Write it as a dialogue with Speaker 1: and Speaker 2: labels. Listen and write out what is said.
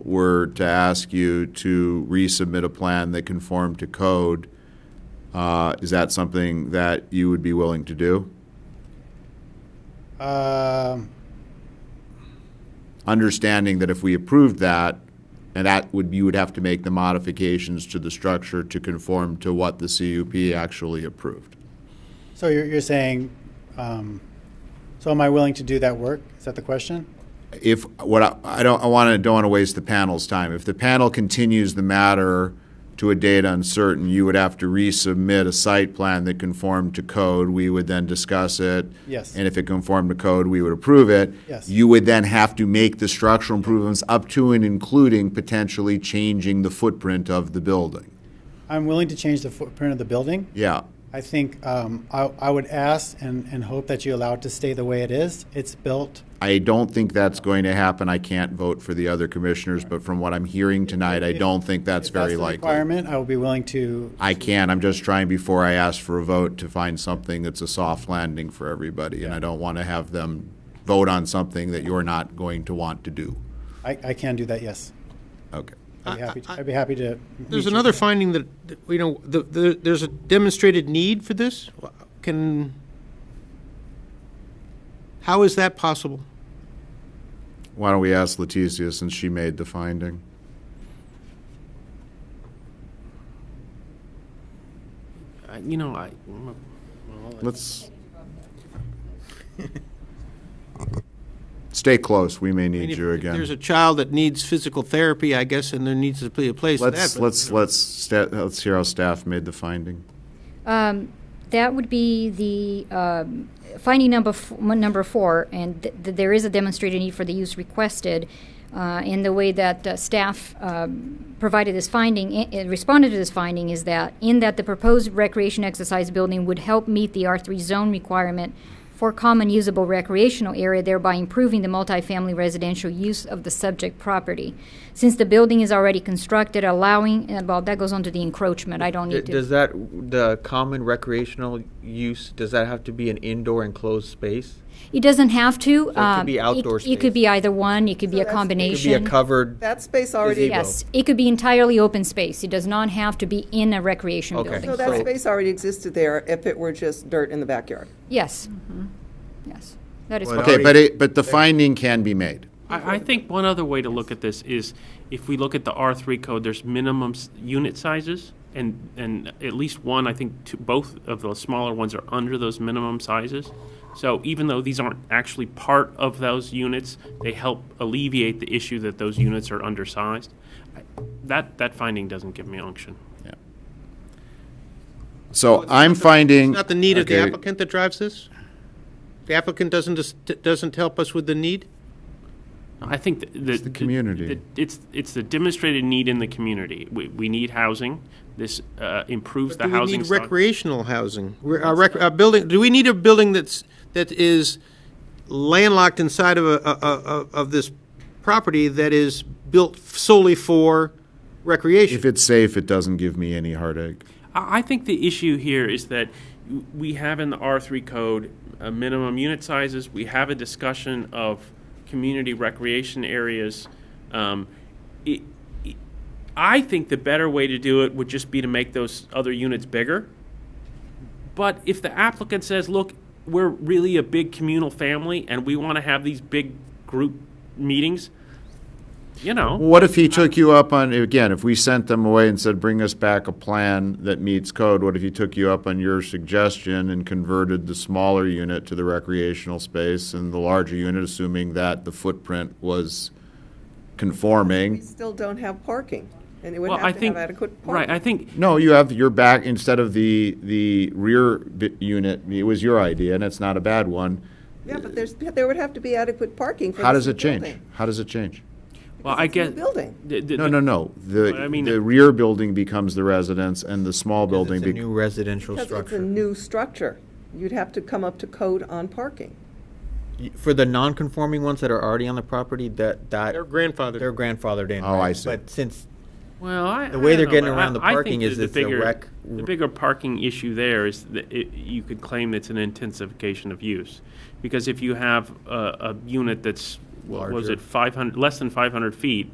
Speaker 1: were to ask you to resubmit a plan that conformed to code, uh, is that something that you would be willing to do?
Speaker 2: Um,
Speaker 1: Understanding that if we approved that, and that would, you would have to make the modifications to the structure to conform to what the CUP actually approved.
Speaker 2: So you're, you're saying, um, so am I willing to do that work? Is that the question?
Speaker 1: if what I, I don't I want to don't want to waste the panel's time. If the panel continues the matter to a date uncertain, you would have to resubmit a site plan that conformed to code. We would then discuss it.
Speaker 2: Yes.
Speaker 1: And if it conformed to code, we would approve it.
Speaker 2: Yes.
Speaker 1: You would then have to make the structural improvements up to and including potentially changing the footprint of the building.
Speaker 2: I'm willing to change the footprint of the building.
Speaker 1: Yeah.
Speaker 2: I think um, I, I would ask and, and hope that you allow it to stay the way it is. It's built.
Speaker 1: I don't think that's going to happen. I can't vote for the other commissioners, but from what I'm hearing tonight, I don't think that's
Speaker 2: If
Speaker 1: very
Speaker 2: the
Speaker 1: likely.
Speaker 2: Requirement. I will be willing to.
Speaker 1: I can. I'm just trying before I ask for a vote to find something that's a soft landing for everybody, and I don't want to have them vote on something that you're not going to want to do.
Speaker 2: I, I can do that. Yes,
Speaker 1: Okay.
Speaker 2: I'd be happy. To, I'd be happy to.
Speaker 3: There's
Speaker 2: meet you.
Speaker 3: another finding that, that, you know, the, the, there's a demonstrated need for this. Can, how is that possible?
Speaker 1: Why don't we ask Leticia since she made the finding?
Speaker 3: I- You know, I,
Speaker 1: Let's stay close. We may
Speaker 3: I mean,
Speaker 1: need
Speaker 3: if-
Speaker 1: you
Speaker 3: if
Speaker 1: again.
Speaker 3: There's a child that needs physical therapy, I guess, and there needs to be a place for that.
Speaker 1: Let's
Speaker 3: but-
Speaker 1: let's let's sta- let's hear how staff made the finding.
Speaker 4: Um, That would be the um, finding number, f- m- number four, and th- th- there is a demonstrated need for the use requested. uh, And the way that uh, staff um, provided this finding, i- i- responded to this finding, is that in that the proposed recreation exercise building would help meet the R3 zone requirement for common usable recreational area, thereby improving the multifamily residential use of the subject property. Since the building is already constructed, allowing, and well, that goes on to the encroachment, I don't
Speaker 5: D-
Speaker 4: need to.
Speaker 5: Does that the common recreational use? Does that have to be an indoor enclosed space?
Speaker 4: It doesn't have to.
Speaker 5: could
Speaker 4: um,
Speaker 5: be outdoor
Speaker 4: It could
Speaker 5: space.
Speaker 4: be either one, it could be
Speaker 6: So
Speaker 4: a
Speaker 6: that's- it could be a
Speaker 5: It could be a
Speaker 4: combination.
Speaker 5: covered.
Speaker 6: That space already,
Speaker 5: Gazebo.
Speaker 4: Yes, it could be entirely open space. It does not have to be in a recreation
Speaker 5: Okay.
Speaker 6: so
Speaker 4: building.
Speaker 6: that
Speaker 5: So-
Speaker 6: space already existed there if it were just dirt in the backyard.
Speaker 4: Yes.
Speaker 6: Mm-hmm.
Speaker 4: Yes, that is
Speaker 7: Well,
Speaker 1: Okay,
Speaker 7: already-
Speaker 1: but it, but the finding can be made.
Speaker 7: I, I think one other way to look at this is if we look at the R3 code, there's minimum s- unit sizes, and, and at least one, I think two, both of the smaller ones are under those minimum sizes. So even though these aren't actually part of those units, they help alleviate the issue that those units are undersized. I- That, that finding doesn't give me unction.
Speaker 1: So I'm finding.
Speaker 3: It's Not the need of the
Speaker 1: Okay.
Speaker 3: applicant that drives this? The applicant doesn't, dis- doesn't help us with the need?
Speaker 7: I think th- the,
Speaker 1: It's the community.
Speaker 7: the- it's it's the demonstrated need in the community. We, we need housing. This uh, improves the
Speaker 3: Do we
Speaker 7: housing.
Speaker 3: need
Speaker 7: stock.
Speaker 3: recreational housing? We're- Our rec, our building, do we need a building that's, that is landlocked inside of a, a- a- of this property that is built solely for
Speaker 1: If
Speaker 3: recreation?
Speaker 1: it's safe, it doesn't give me any heartache.
Speaker 7: I I think the issue here is that we have in the R3 code uh, minimum unit sizes. We have a discussion of community recreation areas. Um, it, it- I think the better way to do it would just be to make those other units bigger. But if the applicant says, look, we're really a big communal family and we want to have these big group meetings, you know.
Speaker 1: What if he took you up on, again, if we sent them away and said, bring us back a plan that meets code, what if he took you up on your suggestion and converted the smaller unit to the recreational space and the larger unit, assuming that the footprint was
Speaker 6: We
Speaker 1: conforming?
Speaker 6: still don't have parking, and it would
Speaker 7: Well, I
Speaker 6: have to
Speaker 7: think,
Speaker 6: have adequate
Speaker 7: right,
Speaker 6: parking.
Speaker 7: I think
Speaker 1: No, you have your back, instead of the, the rear bit unit, it was your idea, and it's not a bad one.
Speaker 6: Yeah, but there's, there would have to be adequate parking for
Speaker 1: How
Speaker 6: this
Speaker 1: does it change?
Speaker 6: building.
Speaker 1: How does it change?
Speaker 7: Well, I
Speaker 6: It's a new
Speaker 7: guess.
Speaker 6: building.
Speaker 7: the- the-
Speaker 1: No, no, no. The,
Speaker 7: I mean-
Speaker 1: the rear building becomes the residence and the small building.
Speaker 5: It's a
Speaker 1: bec-
Speaker 5: new residential
Speaker 6: Because it's a
Speaker 5: structure
Speaker 6: new structure. You'd have to come up to code on parking.
Speaker 5: Y- for the non-conforming ones that are already on the property. That that
Speaker 3: Their grandfather.
Speaker 5: they're grandfathered in.
Speaker 1: Oh,
Speaker 5: right?
Speaker 1: I see.
Speaker 5: But since
Speaker 7: Well, I.
Speaker 5: The
Speaker 7: I
Speaker 5: way
Speaker 7: don't
Speaker 5: they're
Speaker 7: know,
Speaker 5: getting
Speaker 7: but
Speaker 5: around the
Speaker 7: I- I think
Speaker 5: parking is
Speaker 7: that the
Speaker 5: it's a
Speaker 7: bigger-
Speaker 5: rec-
Speaker 7: The bigger parking issue there is that it, you could claim it's an intensification of use. Because if you have a, a unit that's, what was
Speaker 5: Larger.
Speaker 7: it, 500, less than 500 feet,